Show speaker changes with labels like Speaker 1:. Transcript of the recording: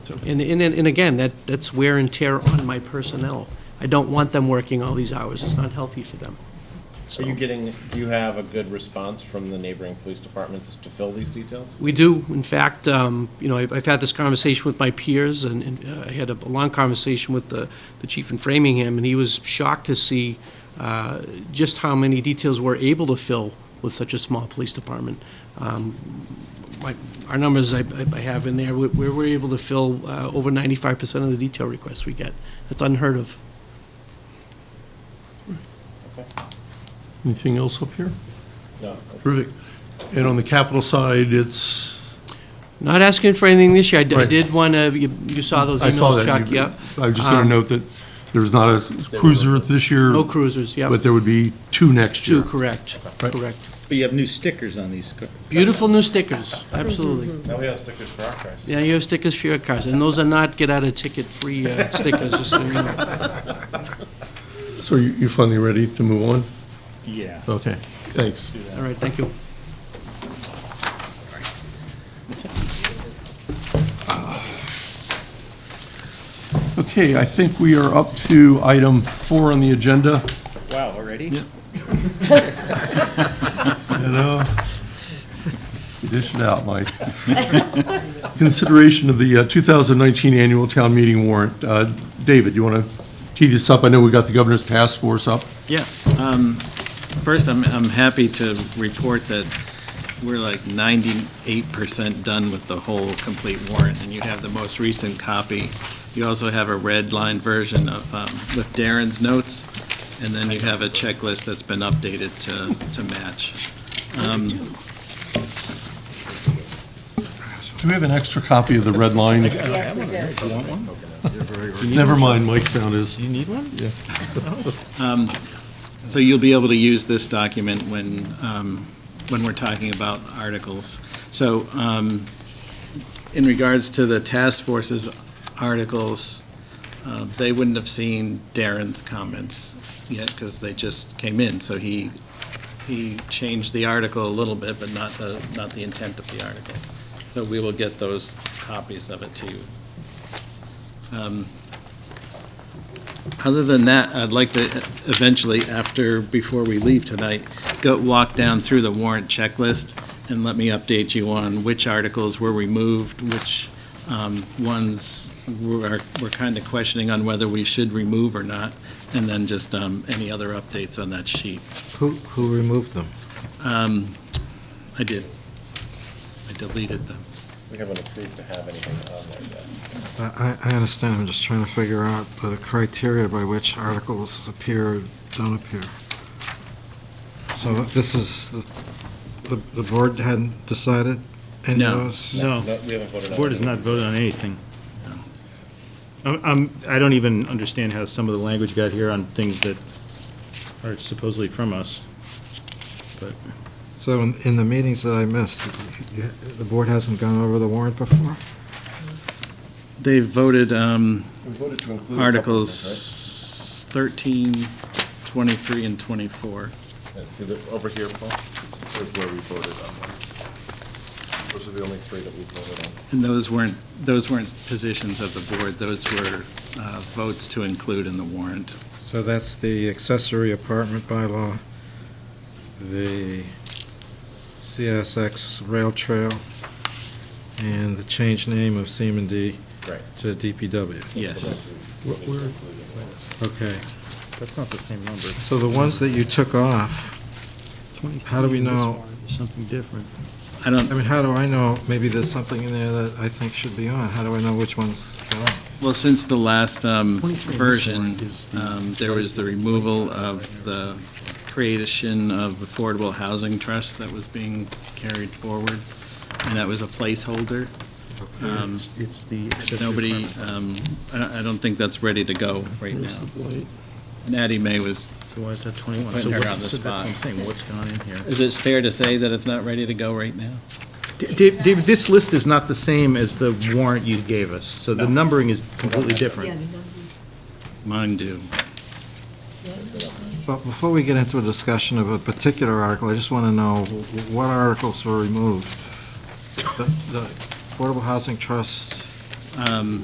Speaker 1: And, and, and again, that, that's wear and tear on my personnel. I don't want them working all these hours, it's not healthy for them.
Speaker 2: Are
Speaker 1: So,
Speaker 2: you getting, do you have a good response from the neighboring police departments to fill these details?
Speaker 1: we do, in fact, um, you know, I've, I've had this conversation with my peers, and, and uh, I had a long conversation with the, the chief in Framingham, and he was shocked to see, uh, just how many details we're able to fill with such a small police department. Um, my- our numbers I I have in there, we- we we're able to fill uh, over 95% of the detail requests we get. That's unheard of.
Speaker 3: Anything else up here?
Speaker 2: No.
Speaker 3: Terrific. And on the capital side, it's,
Speaker 1: Not asking for anything this year. I d- I
Speaker 3: Right.
Speaker 1: did want to, you saw those
Speaker 3: I saw
Speaker 1: emails,
Speaker 3: that.
Speaker 1: Chuck,
Speaker 3: You-
Speaker 1: yep. Um,
Speaker 3: I was just going to note that there's not a cruiser this year,
Speaker 1: No cruisers, yep.
Speaker 3: but there would be two next year.
Speaker 1: Two, correct,
Speaker 3: Right.
Speaker 1: correct.
Speaker 4: But you have new stickers on these.
Speaker 1: Beautiful new stickers, absolutely.
Speaker 2: Now we have stickers for our cars.
Speaker 1: Yeah, you have stickers for your cars, and those are not get-out-of-ticket-free uh, stickers, just so you know.
Speaker 3: So you- you're finally ready to move on?
Speaker 4: Yeah.
Speaker 3: Okay, thanks.
Speaker 1: All right, thank you.
Speaker 3: Okay, I think we are up to item four on the agenda.
Speaker 4: Wow, already?
Speaker 3: You know, you dish it out, Mike. Consideration of the uh, 2019 annual town meeting warrant. Uh, David, you want to tee this up? I know we got the governor's task force up.
Speaker 4: Yeah. um, First, I'm, I'm happy to report that we're like 98% done with the whole complete warrant, and you have the most recent copy. You also have a red line version of, um, with Darren's notes, and then you have a checklist that's been updated to, to match. Um,
Speaker 3: Do we have an extra copy of the red line?
Speaker 5: Yes, we do.
Speaker 3: Never mind, Mike found his.
Speaker 4: you need one? Yeah. So you'll be able to use this document when, um, when we're talking about articles. So um, in regards to the task force's articles, uh, they wouldn't have seen Darren's comments yet because they just came in. So he, he changed the article a little bit, but not the, not the intent of the article. So we will get those copies of it to you. Um, other than that, I'd like to eventually, after, before we leave tonight, go walk down through the warrant checklist and let me update you on which articles were removed, which um, ones we're, we're kind of questioning on whether we should remove or not, and then just um, any other updates on that sheet.
Speaker 6: Who, who removed them?
Speaker 4: Um, I did. I deleted them.
Speaker 2: We haven't approved to have anything on there yet.
Speaker 6: I, I I understand, I'm just trying to figure out the criteria by which articles appear or don't appear. So this is, the- the, the board hadn't decided any of
Speaker 4: No.
Speaker 6: those?
Speaker 7: No,
Speaker 2: No, We haven't voted on.
Speaker 7: the Oh. board has
Speaker 2: anything.
Speaker 7: not voted on anything. I'm- I'm, I don't even understand how some of the language got here on things that are supposedly from us.
Speaker 6: So in, in the meetings that I missed, you- the board hasn't gone over the warrant before?
Speaker 4: They voted, um,
Speaker 2: We voted to include. a couple of things,
Speaker 4: Articles 13, 23, and 24.
Speaker 2: right? Yeah, See, the- over here, Paul, is where we voted on one. Those are the only three that we voted on.
Speaker 4: And those weren't, those weren't positions of the board, those were uh, votes to include in the warrant.
Speaker 6: So that's the accessory apartment bylaw, the CSX rail trail, and the change name of D
Speaker 2: Right.
Speaker 6: to DPW.
Speaker 4: Yes.
Speaker 6: Okay,
Speaker 7: That's not the same number.
Speaker 6: so the ones that you took off, How do we know-
Speaker 7: Something different.
Speaker 4: I don't,
Speaker 6: I mean, how do I know, maybe there's something in there that I think should be on, how do I know which ones got on?
Speaker 4: well, since the last um,
Speaker 7: 23 in this
Speaker 4: version,
Speaker 7: warrant is the-
Speaker 4: um, there was the removal of the creation of Affordable Housing Trust that was being carried forward, and that was a placeholder. Um,
Speaker 7: It's the
Speaker 4: Nobody, um, I I don't think that's ready to go right now. And Addie May was
Speaker 7: So why is that 21?
Speaker 4: Putting
Speaker 7: So
Speaker 4: her
Speaker 7: what's-
Speaker 4: on the
Speaker 7: so That's what I'm
Speaker 4: spot.
Speaker 7: saying, what's gone in here?
Speaker 4: Is it fair to say that it's not ready to go right now?
Speaker 7: Dave, Dave, this list is not the same as the warrant you gave us, so the numbering is completely
Speaker 5: Yeah,
Speaker 7: different.
Speaker 5: the number.
Speaker 4: Mine do.
Speaker 6: But before we get into a discussion of a particular article, I just want to know wh- what articles were removed. The the Affordable Housing Trust
Speaker 4: Um,